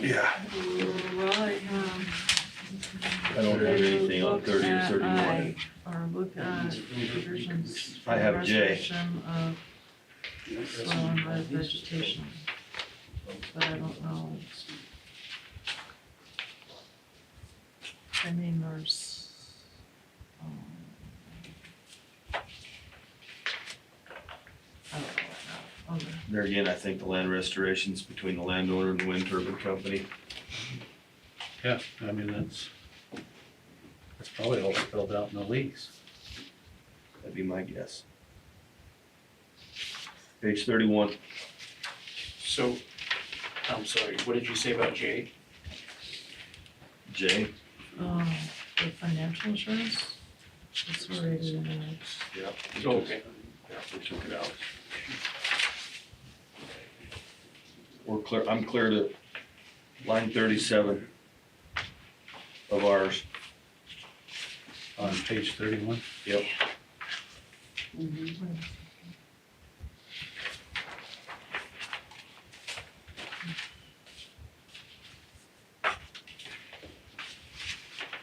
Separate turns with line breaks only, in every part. Yeah.
Right, um,
I don't have anything on thirty or thirty-one.
or look at provisions.
I have J.
Restoration of soil and red vegetation, but I don't know. I mean, there's, um. I don't know right now, okay.
There again, I think the land restoration's between the landowner and the wind turbine company.
Yeah, I mean, that's, that's probably all spelled out in the lease.
That'd be my guess. Page thirty-one,
So, I'm sorry, what did you say about Jay?
J,
Um, the financial insurance, it's already in there.
Yep.
Oh, okay.
Yeah, we took it out.
we're clear, I'm clear to line thirty-seven of ours.
On page thirty-one,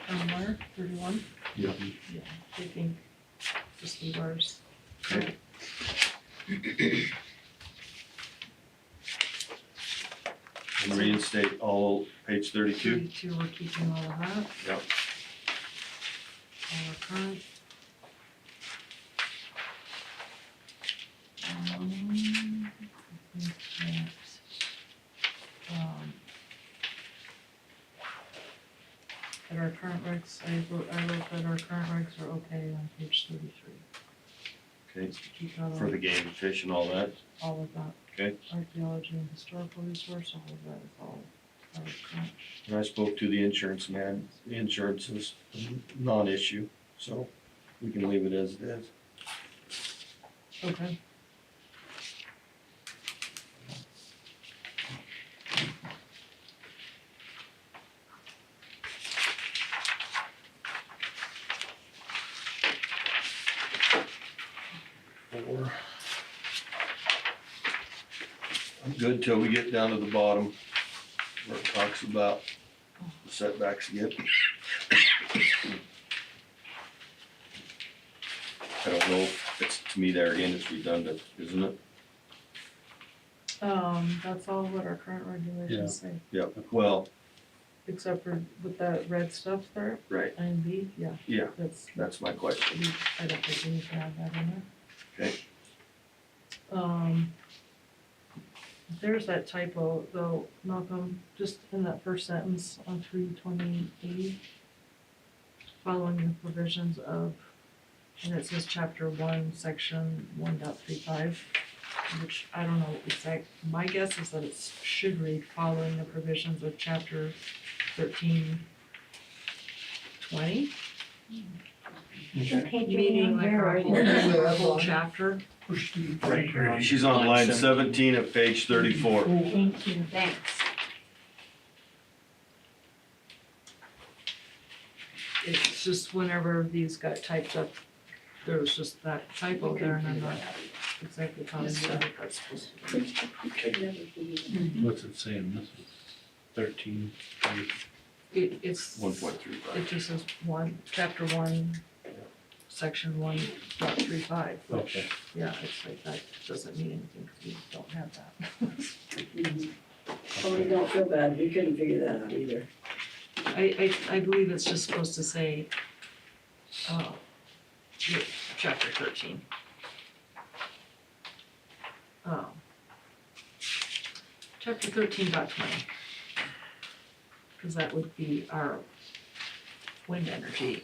Um, where, thirty-one?
Yeah.
Yeah, I think, just the bars.
Okay. And reinstate all, page thirty-two.
Thirty-two, we're keeping all of that.
Yep.
All our current. Um, I think that, um, That our current regs, I wrote, I wrote that our current regs are okay on page thirty-three.
Okay,
Just to keep all
for
of,
the game, fish and all that,
all of that.
Okay.
Archaeology and historical resource, all of that is all, our current.
and I spoke to the insurance man, the insurance is a non-issue, so we can leave it as it is.
Okay.
Four. I'm good till we get down to the bottom, where it talks about the setbacks again. I don't know, it's, to me there again, it's redundant, isn't it?
Um, that's all what our current regulations say,
Yeah, well,
except for with that red stuff there,
right,
I and B, yeah,
yeah,
that's,
that's my question.
we- I don't think we need to have that in there.
Okay.
Um, there's that typo though, Malcolm, just in that first sentence on three twenty-eight. Following the provisions of, and it says chapter one, section one dot three five which I don't know exact, my guess is that it should read following the provisions of chapter thirteen twenty, meaning like our whole, our whole chapter.
Right here on-
She's on line seventeen of page thirty-four.
Thank you, thanks.
It's just whenever these got typed up, there was just that typo there and I'm not exactly positive what that's supposed to be.
what's it saying, this is thirteen, three,
It, it's,
One point three five.
it just says one, chapter one, section one dot three five,
okay.
yeah, it's like, that doesn't mean anything, because we don't have that.
Oh, we don't feel bad, we couldn't figure that out either.
I, I, I believe it's just supposed to say, uh, yeah, chapter thirteen. Um, Chapter thirteen dot twenty. Cause that would be our wind energy.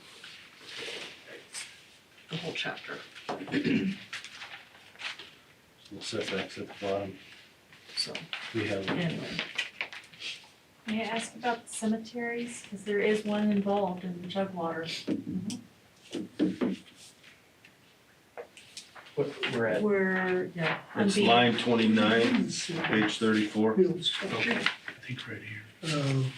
The whole chapter,
The setbacks at the bottom,
so,
we have,
anyway,
May I ask about the cemeteries, because there is one involved in Jugwater.
What, we're at,
we're, yeah, on
It's
B.
line twenty-nine, page thirty-four.
I think right here.
Um,